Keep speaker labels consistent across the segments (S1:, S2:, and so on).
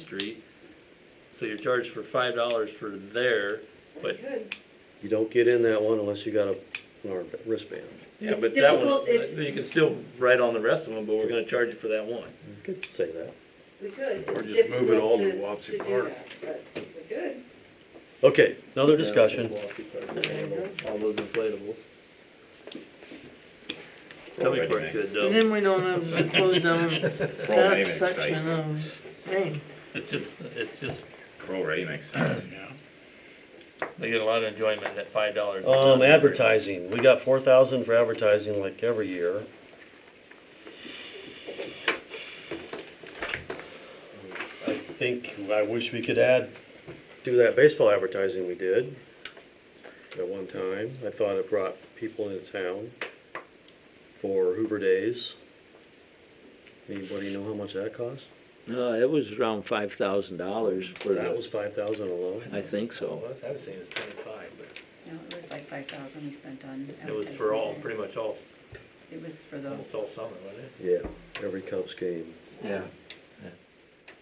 S1: Street. So you're charged for five dollars for there, but,
S2: Good.
S3: You don't get in that one unless you got a an arm- wristband.
S1: yeah,
S2: It's
S1: but that
S2: difficult,
S1: one,
S2: it's-
S1: you can still write on the rest of them, but we're gonna charge you for that one.
S3: You could say that.
S2: We could.
S4: Or
S2: It's
S4: just move it all to
S2: difficult
S4: Wapsie
S2: do
S4: Park.
S2: that, But we could.
S3: Okay, another discussion.
S1: All those inflatables. Coming for it good
S5: And
S1: though.
S5: then we don't have to close down
S4: Crow
S5: that
S4: Raymond's
S5: section
S4: site.
S1: um,
S5: of, hey,
S1: It's just, it's just,
S4: Crow Raymond's site.
S1: they get a lot of enjoyment at five dollars.
S3: Um, advertising, we got four thousand for advertising like every year. I think, I wish we could add, do that baseball advertising we did at one time. I thought it brought people into town for Hoover Days. Anybody know how much that cost?
S6: No, Uh, it was around five thousand dollars for
S3: That
S6: that,
S3: was five thousand alone.
S6: I think so.
S1: I was saying it's twenty-five, but
S7: No, it was like five thousand we spent on.
S1: it was for all,
S7: advertisement.
S1: pretty much all,
S7: It was for the,
S1: almost all summer, wasn't it?
S3: Yeah, every Cubs game.
S6: Yeah.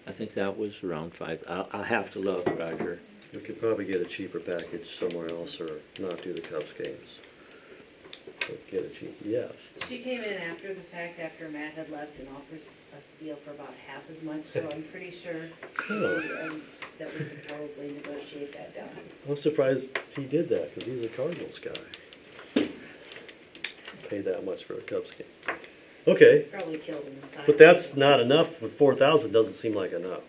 S6: I think that was around five, I'll, I'll have to look, Roger.
S3: We could probably get a cheaper package somewhere else or not do the Cubs games. But Get a cheap, yes.
S2: She came in after the fact, after Matt had left and offers us a deal for about half as much, so I'm pretty sure
S3: Oh,
S2: we, um, that we could probably negotiate that down.
S3: I'm surprised he did that because he's a Cardinals guy. Pay that much for a Cubs game. Okay,
S2: Probably killed him inside.
S3: but that's not enough. With four thousand, doesn't seem like enough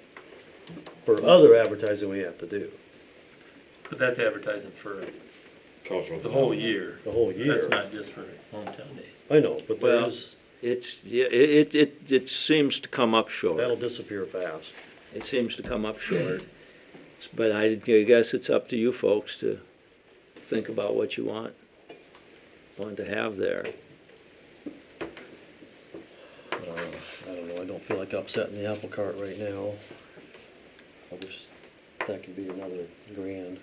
S3: for other advertising we have to do
S1: But that's advertising for
S4: Cultural.
S1: the whole year.
S3: the whole year.
S1: That's not just for hometown days.
S3: I know, but
S6: Well-
S3: there's
S6: It's, yeah, it, it, it, it seems to come up
S3: that'll
S6: short.
S3: disappear fast.
S6: It seems to come up short. But I guess it's up to you folks to think about what you want, want to have there.
S3: Uh, I don't know, I don't feel like upsetting the apple cart right now. I wish that could be another grand.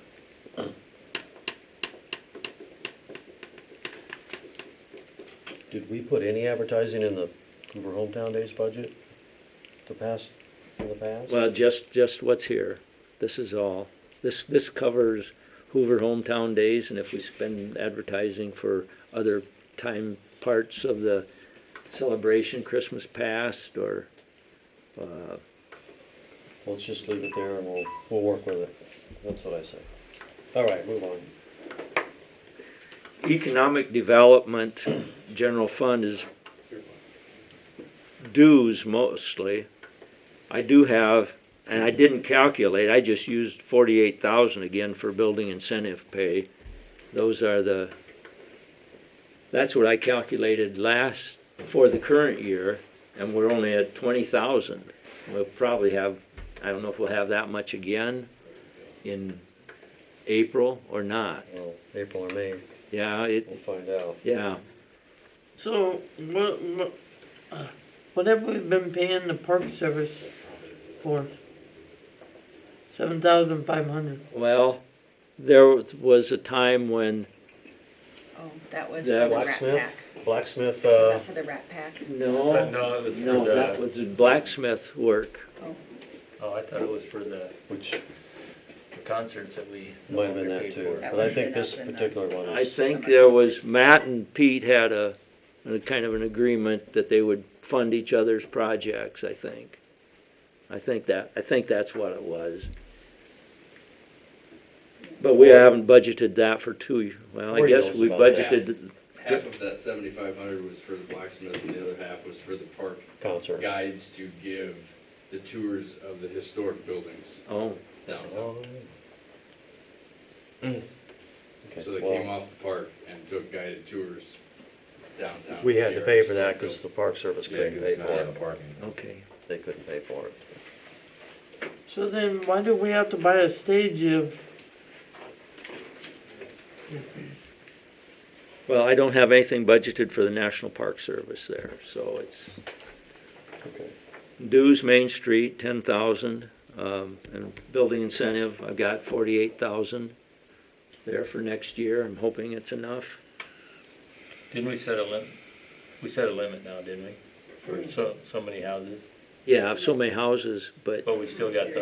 S3: Did we put any advertising in the Hoover Hometown Days budget? The past, in the past?
S6: Well, just, just what's here. This is all. This, this covers Hoover Hometown Days, and if we spend advertising for other time parts of the celebration, Christmas past, or, uh,
S3: Let's just leave it there and we'll, we'll work with it. That's what I say. All right, move on.
S6: economic development, general fund is dues mostly. I do have, and I didn't calculate, I just used forty-eight thousand again for building incentive pay. Those are the, that's what I calculated last, for the current year, and we're only at twenty thousand. We'll probably have, I don't know if we'll have that much again in April or not.
S3: Well, April or May,
S6: Yeah, it,
S3: we'll find out.
S6: yeah,
S5: so what, what, uh, what have we been paying the park service for? Seven thousand five hundred.
S6: well, there was a time when,
S7: oh, that was for
S6: Yeah,
S7: the Rat
S3: Blacksmith,
S7: Pack. Was
S3: blacksmith, uh,
S7: that for the Rat Pack?
S1: Uh,
S6: no,
S1: No, it was for
S6: no, that
S1: the,
S6: was the blacksmith work.
S1: oh, I thought it was for the
S3: which
S1: the concerts that we. no
S3: Might have been
S1: longer
S3: that
S1: paid
S3: too,
S1: for.
S7: That
S3: but I
S7: would've
S3: think
S7: been
S3: this
S7: up in the-
S3: particular one
S6: I
S3: is,
S6: think there was, Matt and Pete had a, a kind of an agreement that they would fund each other's projects, I think. I think that, I think that's what it was. But we haven't budgeted that for two, well, I
S3: Cory
S6: guess
S3: knows
S6: we
S3: about that.
S6: budgeted,
S8: Half of that seventy-five hundred was for the blacksmith, and the other half was for the park
S3: concert.
S8: guides to give the tours of the historic buildings
S6: oh,
S8: downtown.
S3: Oh,
S8: So
S3: Mm. Okay,
S8: they came
S3: well,
S8: off the park and took guided tours downtown.
S3: we had to pay for that
S8: Sierra,
S3: because the park service
S8: Yeah,
S3: couldn't
S8: 'cause
S3: pay
S8: it's
S3: for
S8: not in the
S3: it.
S8: park.
S6: okay.
S3: They couldn't pay for it.
S5: So then why do we have to buy a stage if?
S6: Well, I don't have anything budgeted for the National Park Service there, so it's
S3: Okay.
S6: dues, Main Street, ten thousand, um, and building incentive, I've got forty-eight thousand there for next year, I'm hoping it's enough.
S1: Didn't we set a limit? We set a limit now, didn't we? For so, so many houses?
S9: yeah, so many houses, but
S6: but we still got the